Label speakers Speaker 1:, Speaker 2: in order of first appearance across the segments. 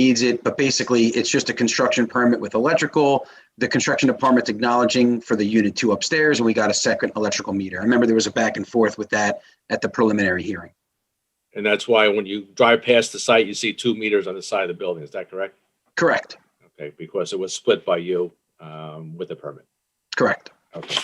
Speaker 1: needs it, but basically it's just a construction permit with electrical. The construction department's acknowledging for the unit two upstairs and we got a second electrical meter. I remember there was a back and forth with that at the preliminary hearing.
Speaker 2: And that's why when you drive past the site, you see two meters on the side of the building. Is that correct?
Speaker 1: Correct,
Speaker 2: Okay, because it was split by you um, with the permit.
Speaker 1: correct.
Speaker 2: Okay.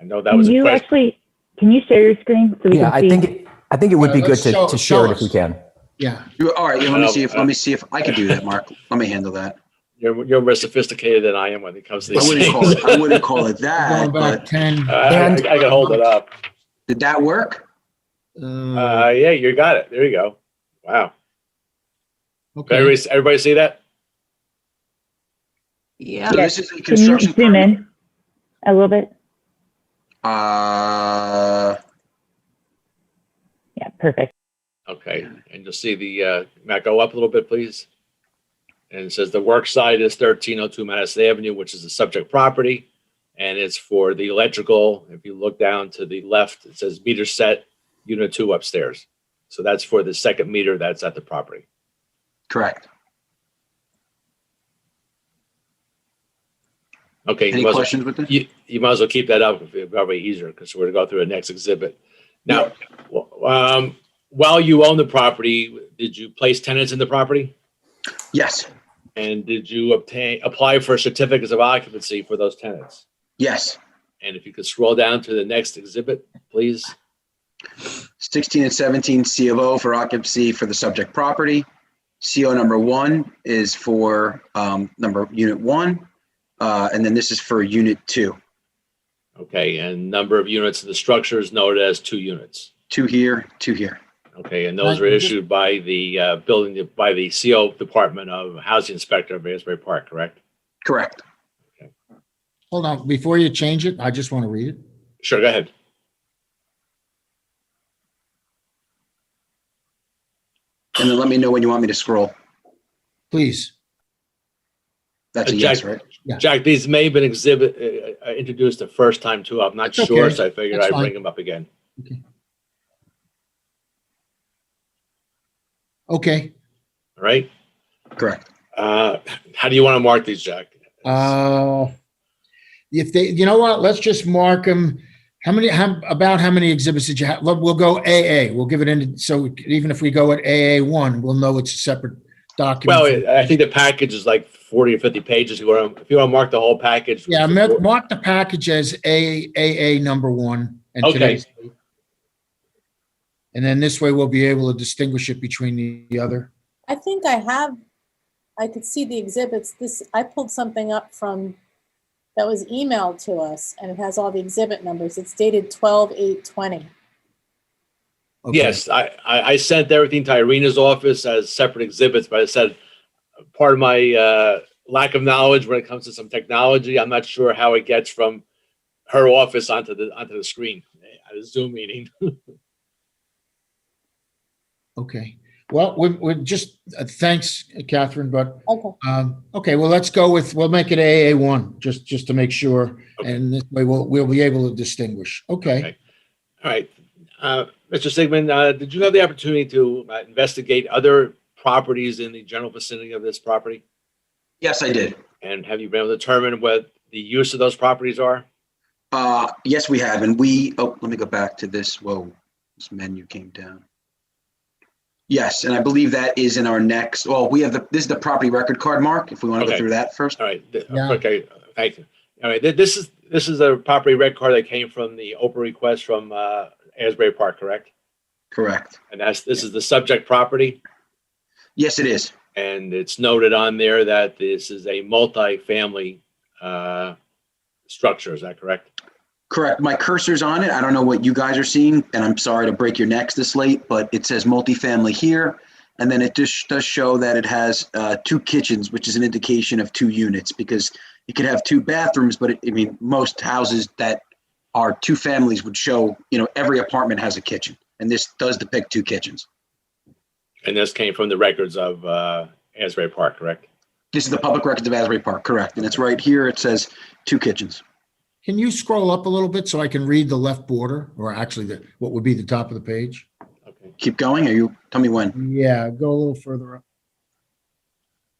Speaker 2: I know that was
Speaker 3: Can
Speaker 2: a
Speaker 3: you
Speaker 2: question.
Speaker 3: actually, can you share your screen so we
Speaker 4: Yeah,
Speaker 3: can
Speaker 4: I
Speaker 3: see?
Speaker 4: think, it- I think it would
Speaker 5: Yeah,
Speaker 4: be good
Speaker 5: let's
Speaker 4: to,
Speaker 5: show-
Speaker 4: to share
Speaker 5: show
Speaker 4: it if we
Speaker 5: us.
Speaker 4: can.
Speaker 5: Yeah,
Speaker 1: You, all right, yeah, let me
Speaker 2: Um,
Speaker 1: see if, let me see if I can do that, Mark. Let me handle that.
Speaker 2: You're, you're more sophisticated than I am when it comes to
Speaker 1: I
Speaker 2: these
Speaker 1: wouldn't call
Speaker 2: things.
Speaker 1: it, I wouldn't call it
Speaker 5: going
Speaker 1: that,
Speaker 5: back
Speaker 1: but
Speaker 5: ten.
Speaker 2: Uh, I I can hold it up.
Speaker 1: did that work?
Speaker 5: uh,
Speaker 1: Mm.
Speaker 2: Uh, yeah, you got it. There you go. Wow.
Speaker 5: Okay.
Speaker 2: Everybody, everybody see that?
Speaker 6: Yeah.
Speaker 1: So this is a
Speaker 3: Can you
Speaker 1: construction
Speaker 3: zoom
Speaker 1: permit.
Speaker 3: in a little bit?
Speaker 1: Uh,
Speaker 3: Yeah, perfect.
Speaker 2: Okay, and you'll see the, uh, Matt, go up a little bit, please. And it says the work site is thirteen oh two Madison Avenue, which is the subject property. And it's for the electrical. If you look down to the left, it says meter set, unit two upstairs. So that's for the second meter that's at the property.
Speaker 1: correct.
Speaker 2: Okay, you
Speaker 1: Any
Speaker 2: might, as well-
Speaker 1: questions with this?
Speaker 2: you, you might as well keep that up, if it's probably easier, because we're gonna go through the next exhibit. Now, w- um, while you own the property, did you place tenants in the property?
Speaker 1: Yes,
Speaker 2: And did you obtain, apply for certificates of occupancy for those tenants?
Speaker 1: yes.
Speaker 2: And if you could scroll down to the next exhibit, please.
Speaker 1: 16 and 17 C of O for occupancy for the subject property. CO number one is for, um, number, unit one. Uh, and then this is for unit two,
Speaker 2: Okay, and number of units in the structure is noted as two units.
Speaker 1: two here, two here.
Speaker 2: Okay, and those were issued by the uh, building, by the CO Department of Housing Inspector of Asbury Park, correct?
Speaker 1: Correct.
Speaker 5: Hold on, before you change it, I just want to read it.
Speaker 2: Sure, go ahead.
Speaker 1: And then let me know when you want me to scroll.
Speaker 5: Please,
Speaker 1: That's a
Speaker 2: Uh,
Speaker 1: yes,
Speaker 2: Jack-
Speaker 1: right?
Speaker 2: Jack, these may have been exhibit, uh, uh, introduced the first time too. I'm not
Speaker 5: That's
Speaker 2: sure,
Speaker 5: okay.
Speaker 2: so I figured
Speaker 5: That's
Speaker 2: I'd
Speaker 5: fine.
Speaker 2: bring them up again.
Speaker 5: okay.
Speaker 2: All right?
Speaker 1: Correct.
Speaker 2: Uh, How do you want to mark these, Jack?
Speaker 5: Uh, If they, you know what, let's just mark them. How many, how, about how many exhibits did you have? Look, We'll go AA, we'll give it in, so even if we go at AA one, we'll know it's a separate document.
Speaker 2: Well, I I think the package is like 40 or 50 pages. You want to, if you want to mark the whole package.
Speaker 5: Yeah, I meant- mark the package as A, AA number one. and
Speaker 2: Okay.
Speaker 5: today's- And then this way we'll be able to distinguish it between the- the other.
Speaker 6: I think I have, I could see the exhibits. This, I pulled something up from, that was emailed to us and it has all the exhibit numbers. It's dated twelve eight twenty.
Speaker 5: Okay.
Speaker 2: Yes, I, I, I sent everything to Irina's office as separate exhibits, but I said, part of my, uh, lack of knowledge when it comes to some technology, I'm not sure how it gets from her office onto the, onto the screen at a Zoom meeting.
Speaker 5: Okay. Well, we're, we're just, uh, thanks, Catherine, but,
Speaker 6: Okay,
Speaker 5: um, okay, well, let's go with, we'll make it AA one, just, just to make sure.
Speaker 2: Okay.
Speaker 5: And this way we'll, we'll be able to distinguish. Okay.
Speaker 2: Okay. All right. Uh, Mr. Sigmund, uh, did you have the opportunity to uh, investigate other properties in the general vicinity of this property?
Speaker 1: Yes, I did.
Speaker 2: And have you been able to determine what the use of those properties are?
Speaker 1: Uh, yes, we have, and we, oh, let me go back to this, whoa, this menu came down. Yes, and I believe that is in our next, well, we have the, this is the property record card, Mark, if we want to go
Speaker 2: Okay.
Speaker 1: through that first.
Speaker 2: All right, th-
Speaker 5: Yeah.
Speaker 2: okay, thank you. All right, th- this is, this is a property red card that came from the Oprah request from uh, Asbury Park, correct?
Speaker 1: Correct.
Speaker 2: And that's, this is the subject property,
Speaker 1: Yes, it is.
Speaker 2: and it's noted on there that this is a multifamily uh, structure, is that correct?
Speaker 1: Correct. My cursor's on it. I don't know what you guys are seeing, and I'm sorry to break your necks this late, but it says multifamily here. And then it just does show that it has uh, two kitchens, which is an indication of two units because it could have two bathrooms, but it, I mean, most houses that are two families would show, you know, every apartment has a kitchen. And this does depict two kitchens.
Speaker 2: And this came from the records of uh, Asbury Park, correct?
Speaker 1: This is the public records of Asbury Park, correct? And it's right here. It says two kitchens.
Speaker 5: Can you scroll up a little bit so I can read the left border or actually the, what would be the top of the page?
Speaker 2: Okay.
Speaker 1: Keep going. Are you, tell me when.
Speaker 5: Yeah, go a little further up.